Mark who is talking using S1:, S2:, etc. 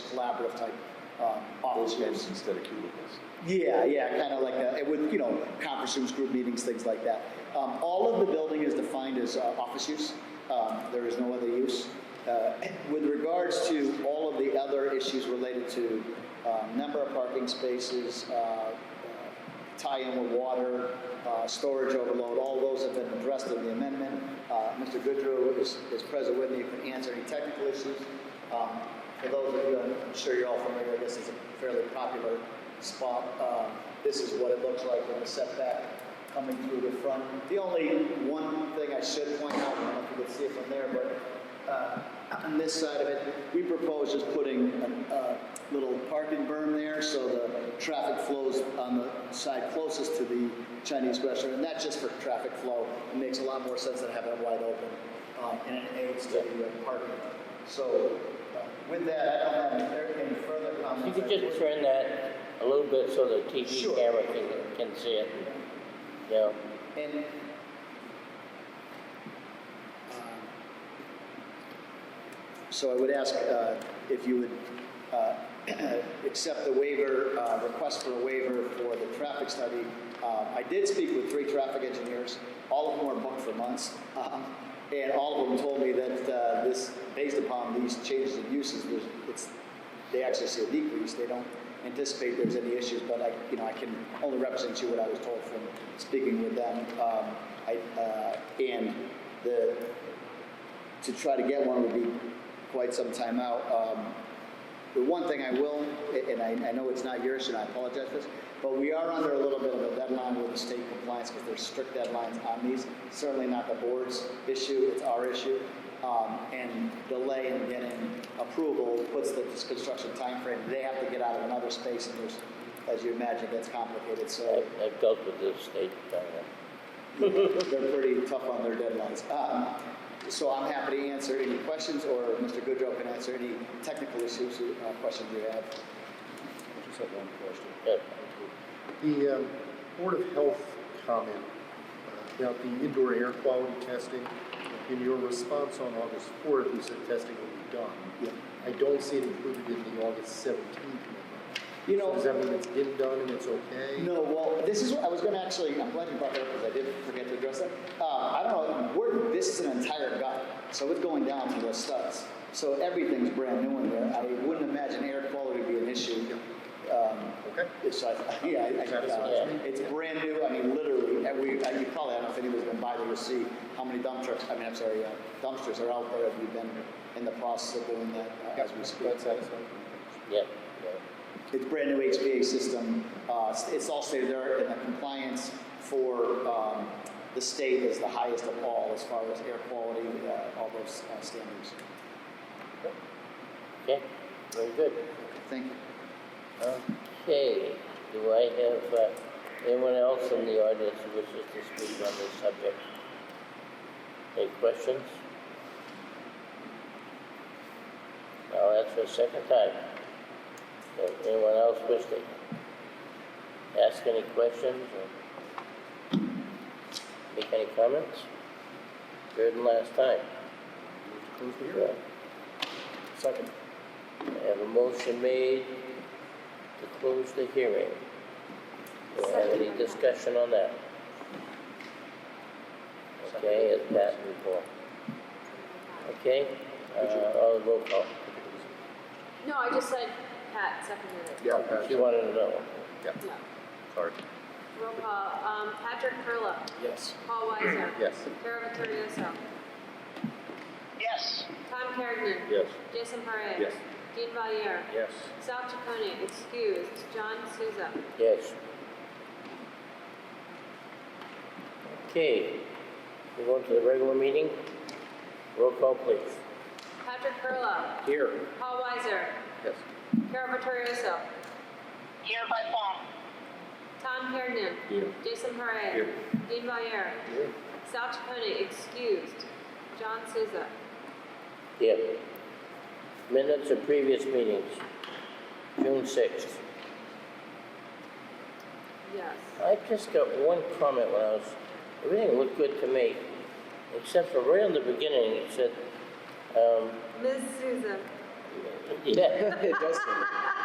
S1: collaborative type um, office
S2: Those
S1: space.
S2: rooms instead of cubicles.
S1: Yeah, yeah, kind of like that, It would, you know, conference rooms, group meetings, things like that. Um, All of the building is defined as uh, office use, Um, there is no other use. Uh, With regards to all of the other issues related to um, number of parking spaces, uh, uh, tie-in with water, uh, storage overload, all those have been addressed in the amendment. Uh, Mr. Goodrow is is present with me, He can answer any technical issues. Um, for those of you, I'm sure you're all familiar, this is a fairly popular spot. Um, This is what it looks like with the setback coming through the front. The only one thing I should point out, I don't know if you can see it from there, but uh, on this side of it, we propose just putting a a little parking berm there so the traffic flows on the side closest to the Chinese restaurant. And that's just for traffic flow. It makes a lot more sense than having it wide open. um, And it aids to the uh, parking. So uh, with that, I don't have any- there any further comments.
S3: You could just turn that a little bit so the TV
S1: Sure.
S3: camera can, can see it. Yeah,
S1: And So I would ask uh, if you would uh, accept the waiver, uh, request for a waiver for the traffic study. Uh, I did speak with three traffic engineers, all of them were booked for months. um, And all of them told me that uh, this, based upon these changes in uses, there's- it's, they actually see a decrease. They don't anticipate there's any issues, but I, you know, I can only represent to you what I was told from speaking with them. Um, I, uh, And the, to try to get one would be quite some time out. Um, The one thing I will, and I, I know it's not yours, and I apologize for this, but we are under a little bit of a deadline with the state compliance, because there's strict deadlines on these. Certainly not the board's issue, it's our issue. Um, and delay in getting approval puts the construction timeframe, they have to get out of another space, and there's, as you imagine, that's complicated, so.
S3: I, I've dealt with this state, uh,
S1: They're pretty tough on their deadlines. Um, So I'm happy to answer any questions, or Mr. Goodrow can answer any technical issues, uh, questions you have.
S4: I just have one question.
S3: yeah.
S4: The um, Board of Health comment uh, about the indoor air quality testing, in your response on August 4th, you said testing will be
S1: Yeah.
S4: done. I don't see it included in the August 17th memo.
S1: You know-
S4: So Does that mean it's been done and it's okay?
S1: No, well, this is, what I was gonna actually, I'm glad you brought that up, because I did forget to address that. Uh, I don't know, we're, this is an entire gut, so it's going down to the studs. So everything's brand new in there. I wouldn't imagine air quality would be an issue. Um,
S4: Okay.
S1: It's, I, yeah, I, I, uh,
S4: Satisfies
S3: me.
S1: it's brand new, I mean, literally, and we, and you probably, I don't know if anybody's been by there to see how many dump trucks, I mean, I'm sorry, uh, dumpsters are out there, we've been in the process of doing that uh, as we speak.
S4: That's satisfying.
S3: yeah,
S1: It's brand new HVAC system, uh, it's- it's all state of the art, and the compliance for, um, the state is the highest of all as far as air quality, uh, all those uh, standards.
S3: yeah, okay, very good.
S1: Thank you.
S3: Okay, do I have, uh, anyone else in the audience who wishes to speak on this subject? Any questions? I'll ask for a second time. Does anyone else wish to ask any questions or make any comments? Third and last time.
S4: Move to Close the hearing.
S3: Yeah.
S4: Second.
S3: I have a motion made to close the hearing. Do I have any discussion on that? Okay, it's passed before. Okay, uh, all roll call.
S5: No, I just said Pat seconded it.
S4: Yeah, Patrick.
S3: She wanted to know.
S5: No.
S4: Sorry.
S5: Roll call. Um, Patrick Perla.
S3: Yes.
S5: Paul Weiser.
S4: Yes.
S5: Carol Vittorioso.
S1: Yes.
S5: Tom Carrigan.
S4: Yes.
S5: Jason Parra.
S4: Yes.
S5: Dean Valier.
S4: Yes.
S5: Sal Chaconi, excused. John Souza.
S3: Yes. Okay, we're going to the regular meeting. Roll call, please.
S5: Patrick Perla.
S4: Here.
S5: Paul Weiser.
S4: Yes.
S5: Carol Vittorioso.
S6: Here by phone.
S5: Tom Carrigan.
S4: Here.
S5: Jason Parra.
S4: Here.
S5: Dean Valier.
S4: Here.
S5: Sal Chaconi, excused. John Souza.
S3: Yeah. Minutes of previous meetings, June sixth.
S5: Yes.
S3: I just got one comment when I was, everything looked good to me,
S4: Uh,
S3: except for right in the beginning, it said, um,
S5: Ms. Souza.
S7: Yeah.
S3: It does say that.